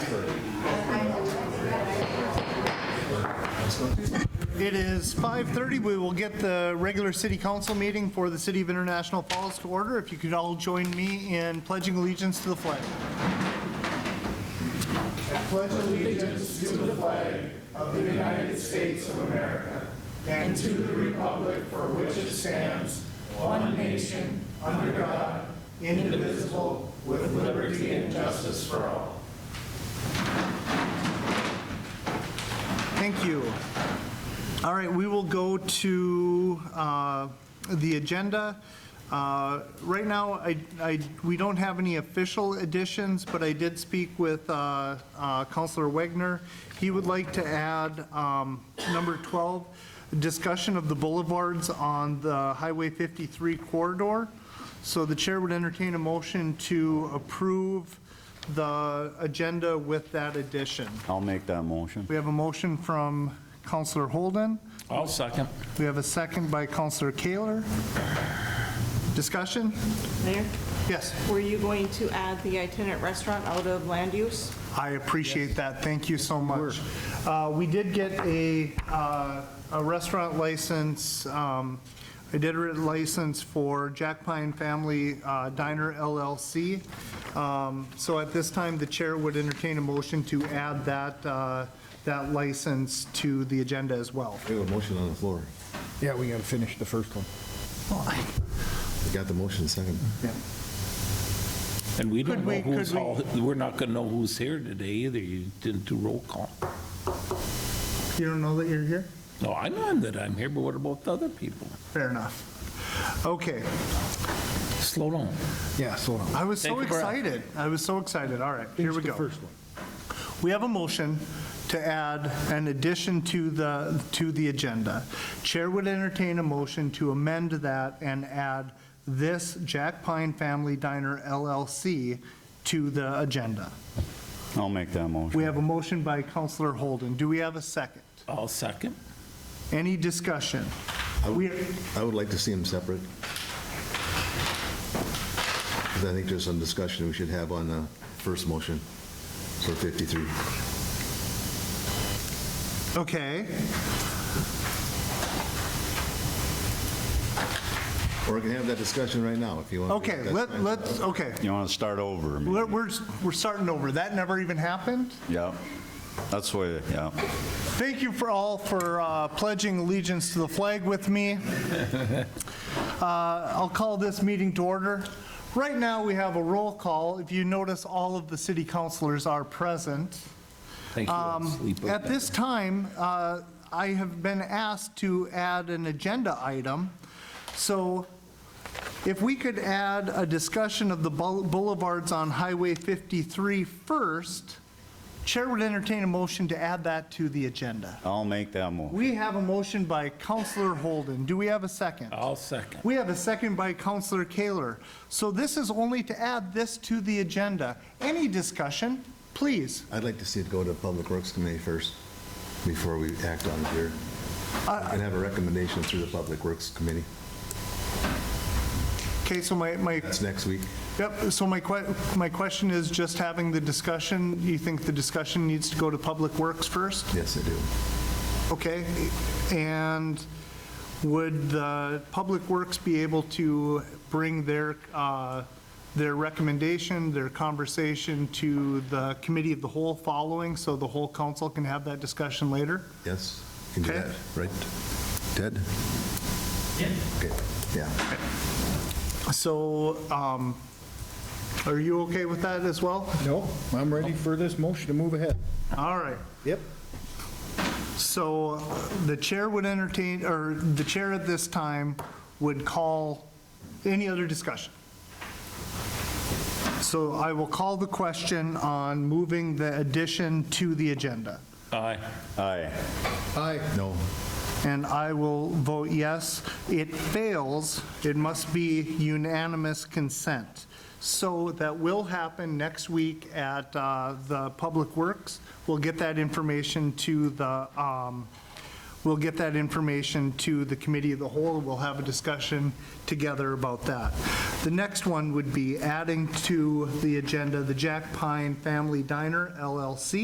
It is 5:30. We will get the regular city council meeting for the City of International Falls to order. If you could all join me in pledging allegiance to the flag. Thank you. All right, we will go to uh, the agenda. Uh, Right now, I, I, we don't have any official additions, but I did speak with uh, uh, Counselor Wegner. He would like to add um, number 12, discussion of the boulevards on the Highway 53 corridor. So the chair would entertain a motion to approve the agenda with that addition. I'll make that motion. We have a motion from Counselor Holden. I'll second. We have a second by Counselor Kaler. Discussion? Mayor, Yes, were you going to add the itinerant restaurant out of land use? I appreciate that. Thank you so much. Uh, We did get a uh, a restaurant license, um, I did a license for Jack Pine Family uh, Diner LLC. Um, So at this time, the chair would entertain a motion to add that, uh, that license to the agenda as well. We have a motion on the floor. Yeah, we gotta finish the first one. We got the motion second. And we don't Could know we- who's could we- all, we're not going to know who's here today either. You didn't do roll call. You don't know that you're here? No, I know that I'm here, but what about the other people? Fair enough. Okay, Slow down. Yeah, so on. I was so Take a breath. excited. I was so excited. All right, here we go. We have a motion to add an addition to the, to the agenda. Chair would entertain a motion to amend that and add this Jack Pine Family Diner LLC to the agenda. I'll make that We motion. have a motion by Counselor Holden. Do we have a second? I'll second. Any discussion? We, I would like to see them separate. 'Cause I think there's some discussion we should have on the first motion for 53. okay, Or we can have that discussion right now if you want. okay, let, let's, okay. You want to start over? maybe? We're, we're, we're starting over. That never even happened? Yep. That's why, yeah. Thank you for all for uh, pledging allegiance to the flag with me. Uh, I'll call this meeting to order. Right now, we have a roll call. If you notice, all of the city councilors are present. Thank you. Um, I'll sleep At with this time, uh, I have been asked to add an agenda item. So if we could add a discussion of the bou- boulevards on Highway 53 first, Chair would entertain a motion to add that to the agenda. I'll make that motion. We have a motion by Counselor Holden. Do we have a second? that. I'll second. We have a second by Counselor Kaler. So this is only to add this to the agenda. Any discussion, please? I'd like to see it go to Public Works Committee first, before we act on it here. And have a recommendation through the Public Works Committee. Okay, so my, my, That's next week. yep, so my que, my question is just having the discussion, you think the discussion needs to go to Public Works first? Yes, I do. Okay, and would the Public Works be able to bring their, uh, their recommendation, their conversation to the Committee of the Whole following, so the whole council can have that discussion later? Yes, you can do Okay. that, right? Ted? Okay, yeah. So, um, are you okay with that as well? No, I'm ready for this motion to move ahead. All right. Yep. So uh, the chair would entertain, or the chair at this time would call, any other discussion? So I will call the question on moving the addition to the agenda. Aye. Aye. Aye. No, And I will vote yes. It fails, it must be unanimous consent. So that will happen next week at uh, the Public Works. We'll get that information to the, um, we'll get that information to the Committee of the Whole. We'll have a discussion together about that. The next one would be adding to the agenda the Jack Pine Family Diner LLC.